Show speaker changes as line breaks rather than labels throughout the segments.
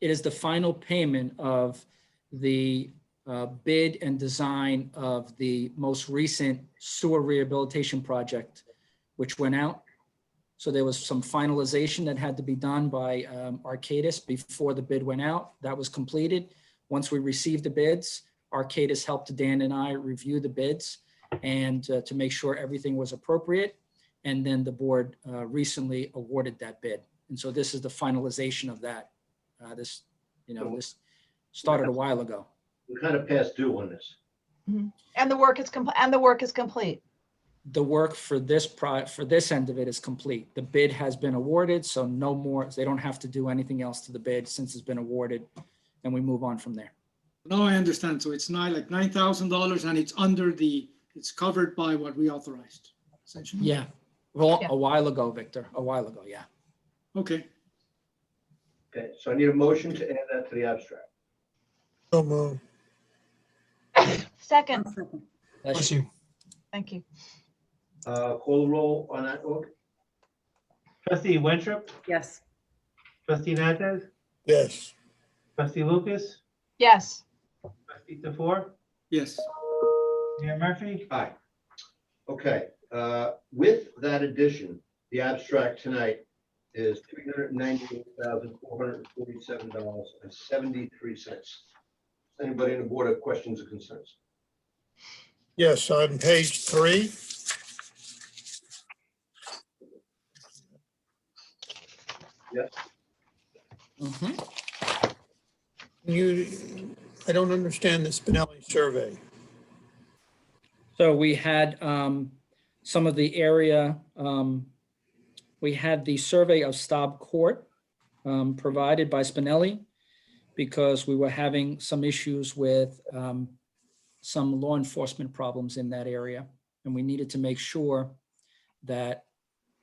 it is the final payment of the uh, bid and design of the most recent sewer rehabilitation project, which went out. So there was some finalization that had to be done by um, Arcadis before the bid went out. That was completed. Once we received the bids, Arcadis helped Dan and I review the bids and uh, to make sure everything was appropriate. And then the board uh, recently awarded that bid. And so this is the finalization of that. Uh, This, you know, this started a while ago.
We're kind of past due on this.
And the work is complete, and the work is complete.
the work for this pro, for this end of it is complete. The bid has been awarded, so no more, they don't have to do anything else to the bid since it's been awarded. And we move on from there.
No, I understand. So it's nine, like nine thousand dollars and it's under the, it's covered by what we authorized, essentially.
Yeah. Well,
Yeah.
a while ago, Victor, a while ago, yeah.
Okay,
Okay, so I need a motion to add that to the abstract.
So move.
Second,
That's-
Bless you.
thank you.
Uh, Call the roll on that, Oak?
Trustee Winthrop,
yes,
trustee Natchez,
Yes.
trustee Lucas,
Yes,
trustee DeFour,
yes.
Mayor Murphy.
Aye. Okay, uh, with that addition, the abstract tonight is three hundred ninety-eight thousand, four hundred and forty-seven dollars and seventy-three cents. Anybody on the board have questions or concerns?
Yes, on page three.
Mhm.
Mm-hmm. You, I don't understand the Spinelli survey.
So we had um, some of the area, um, we had the survey of Staub Court um, provided by Spinelli because we were having some issues with um, some law enforcement problems in that area. And we needed to make sure that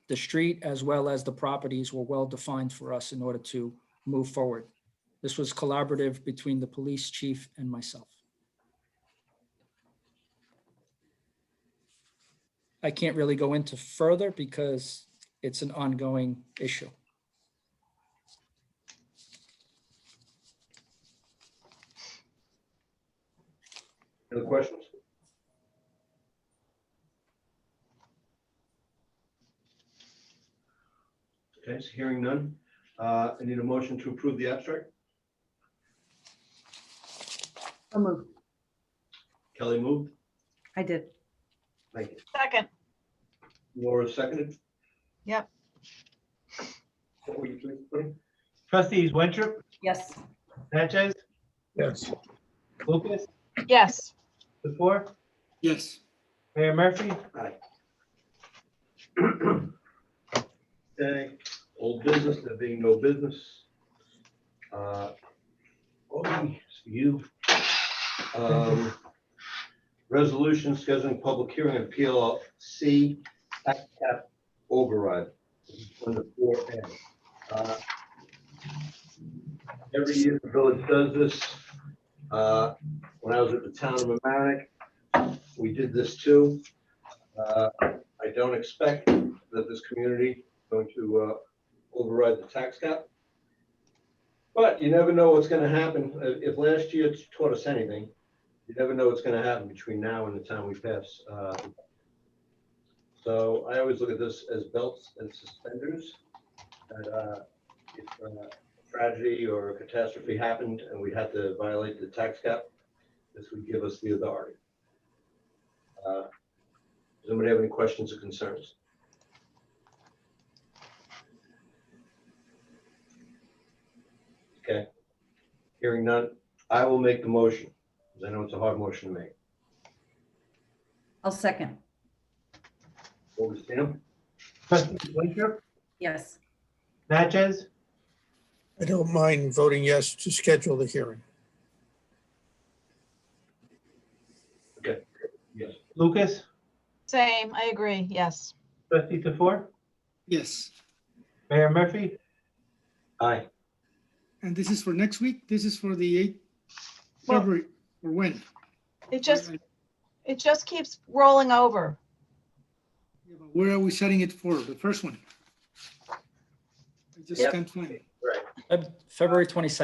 the street as well as the properties were well-defined for us in order to move forward. This was collaborative between the police chief and myself. I can't really go into further because it's an ongoing issue.
Any other questions? Okay, so hearing none. Uh, I need a motion to approve the abstract.
i move.
Kelly moved.
I did.
Thank you.
second,
Laura seconded.
Yep.
What were you doing, Tony?
Trustees Winthrop,
Yes,
Natchez,
Yes.
Lucas,
yes,
DeFour,
Yes,
Mayor Murphy.
Okay, old business, there being no business. Uh, Oh, it's you. Um, Resolution scheduling public hearing of PLC tax cap override. Under four A. Uh, Every year the village does this. Uh, When I was at the town of Amerenik, we did this too. Uh, I don't expect that this community going to uh, override the tax cap. But you never know what's going to happen. Uh, If last year it's taught us anything, you never know what's going to happen between now and the time we pass. uh, So I always look at this as belts and suspenders. that, uh, If uh, tragedy or catastrophe happened and we had to violate the tax cap, this would give us the authority. Uh, Does anybody have any questions or concerns? Okay. Hearing none, I will make the motion, because I know it's a hard motion to make.
I'll second.
Over to Sam.
Trustees Winthrop,
Yes,
Natchez,
I don't mind voting yes to schedule the hearing.
Yes.
Lucas,
same, I agree, yes.
trustee DeFour,
yes.
Mayor Murphy.
Aye.
And this is for next week? This is for the eighth
Well-
February or when?
It just, it just keeps rolling over.
Where are we setting it for? The first one? I just
Yep.
can't find it.
Feb- February 22nd.